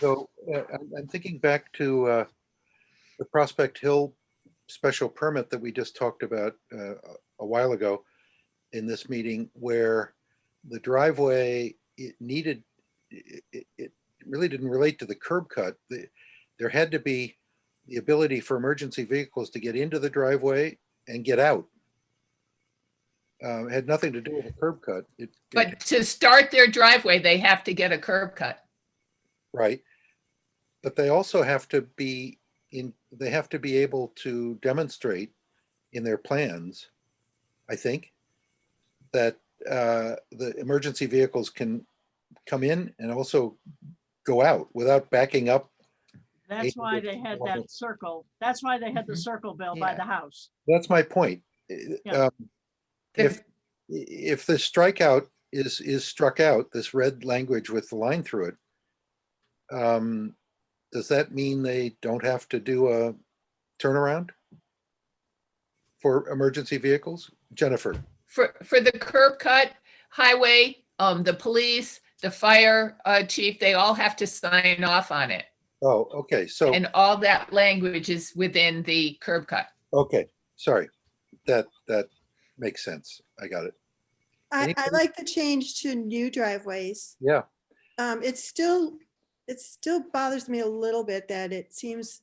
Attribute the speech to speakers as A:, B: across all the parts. A: So uh, I'm, I'm thinking back to uh, the Prospect Hill special permit that we just talked about uh, a while ago in this meeting where the driveway, it needed, it, it- it really didn't relate to the curb cut. The- There had to be the ability for emergency vehicles to get into the driveway and get out. Um, it Had nothing to do with the curb cut. It- it-
B: But to start their driveway, they have to get a curb cut.
A: Right. But they also have to be in, they have to be able to demonstrate in their plans, I think, that uh, the emergency vehicles can come in and also go out without backing up.
C: That's why
A: Eight
C: they had
A: hundred.
C: that circle. That's why they had the
B: Mhm.
C: circle bill by
B: Yeah.
C: the house.
A: That's my point. I-
C: Yeah.
A: um, If, if the strikeout is, is struck out, this red language with the line through it, um, does that mean they don't have to do a turnaround? For emergency vehicles? Jennifer,
B: For, for the curb cut, highway, um, the police, the fire, uh, chief, they all have to sign off on it.
A: oh, okay, so,
B: And all that language is within the curb cut.
A: okay, sorry. That, that makes sense. I got it.
D: I, I
A: Anybody?
D: like the change to new driveways.
A: Yeah,
D: Um, it's still, it still bothers me a little bit that it seems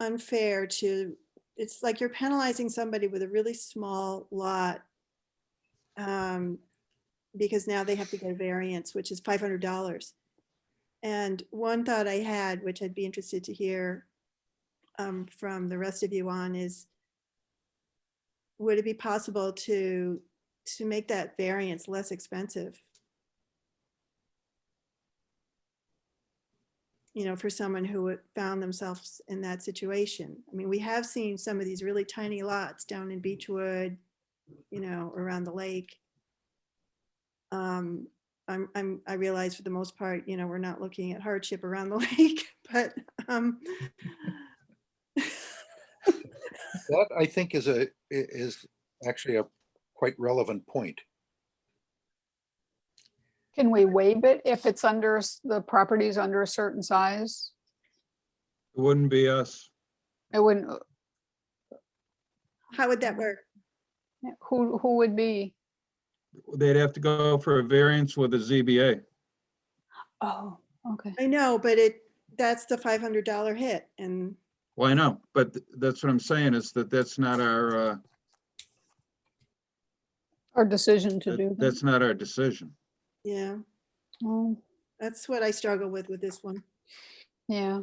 D: unfair to, it's like you're penalizing somebody with a really small lot. Um, because now they have to get a variance, which is five hundred dollars. And one thought I had, which I'd be interested to hear um, from the rest of you on is would it be possible to, to make that variance less expensive? you know, for someone who would- found themselves in that situation. I mean, we have seen some of these really tiny lots down in Beechwood, you know, around the lake. Um, I'm, I'm, I realize for the most part, you know, we're not looking at hardship around the lake, but, um,
A: that I think is a, i- is actually a quite relevant point.
E: Can we waive it if it's under, a s- the property's under a certain size?
F: It wouldn't be us.
E: It wouldn't,
D: how would that work?
E: who, who would be?
F: They'd have to go for a variance with the ZBA.
E: Oh, okay.
D: I know, but it, that's the five hundred dollar hit and,
F: Well, I know, but th- that's what I'm saying is that that's not our, uh,
E: Our decision to do
F: that-
E: that.
F: that's not our decision.
D: yeah,
E: Oh,
D: that's what I struggle with, with this one.
E: Yeah,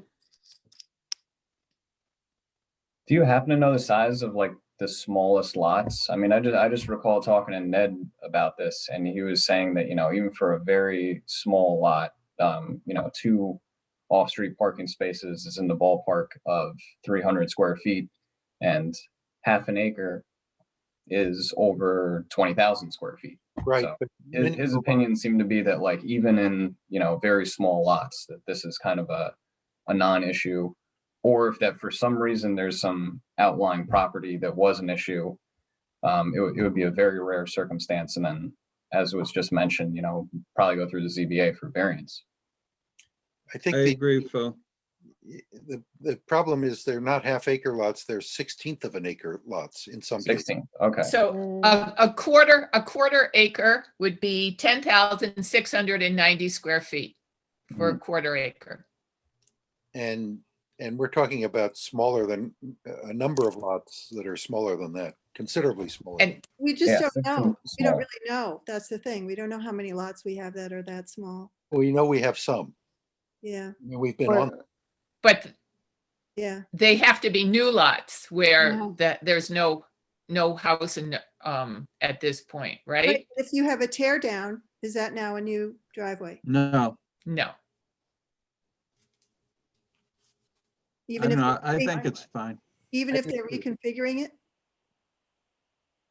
G: Do you happen to know the size of like the smallest lots? I mean, I just I just recall talking to Ned about this, and he was saying that you know even for a very small lot, um, you know, two off-street parking spaces is in the ballpark of 300 square feet, and half an acre is over 20,000 square feet.
A: Right.
G: So,
A: but
G: His,
A: many
G: his
A: people-
G: opinion seemed to be that like even in you know very small lots that this is kind of a a non-issue or if that for some reason there's some outlying property that was an issue um it, would- it would be a very rare circumstance and then as was just mentioned you know probably go through the zba for variance
A: I
F: I
A: think the-
F: agree, Phil.
A: y- the, the problem is they're not half acre lots, they're sixteenth of an acre lots in some cases.
G: 16 okay
E: Mm.
B: So a, a quarter, a quarter acre would be ten thousand six hundred and ninety square feet for
A: Mm-hmm.
B: a quarter acre.
A: And, and we're talking about smaller than, a number of lots that are smaller than that, considerably smaller. than-
B: And
D: We
G: Yeah,
D: just don't
G: 16
D: know.
G: is
D: We don't
G: small.
D: really know. That's the thing. We don't know how many lots we have that are that small.
A: We know we have some,
D: Yeah,
A: I mean, we've been
E: or-
A: on,
B: but
D: yeah.
B: they have to be new lots where
E: Yeah.
B: that there's no, no house in, um, at this point, right?
D: But If you have a tear down, is that now a new driveway?
F: No,
B: No.
F: I
D: Even
F: don't
D: if,
F: know.
D: they're
F: I
D: doing-
F: think it's fine.
D: even
A: I
D: if they're reconfiguring it?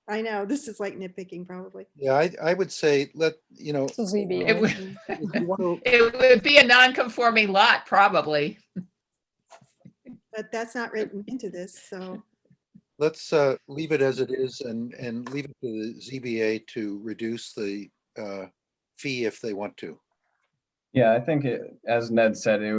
D: I know, this is like nitpicking probably.
A: yeah, I, I would say, let, you know, uh,
E: It's a ZBA.
B: It would,
E: thing.
A: if you want to,
B: it would be a non-conforming lot, probably.
D: But that's not written into this, so
A: let's, uh, leave it as it is and, and leave it to the ZBA to reduce the, uh, fee if they want to.
G: yeah i think it, as ned said it